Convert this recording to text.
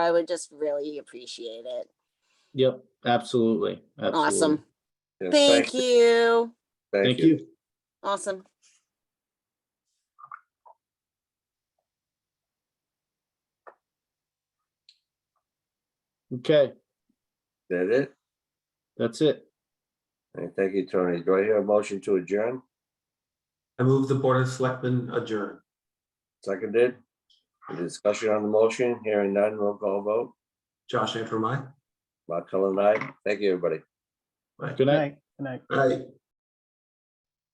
I would just really appreciate it. Yep, absolutely. Awesome. absolutely. Yeah, Thank you. Thank you. Awesome. Okay, That it? that's it. All right, Thank you, Tony. Do I hear a motion to adjourn? I move the Board of Selectmen adjourn. Seconded? Any Discussion on the motion, hearing none, roll call vote. Josh Antrim, aye. Mark Cullen, aye. Thank you, everybody. Aye. Good night. Aye.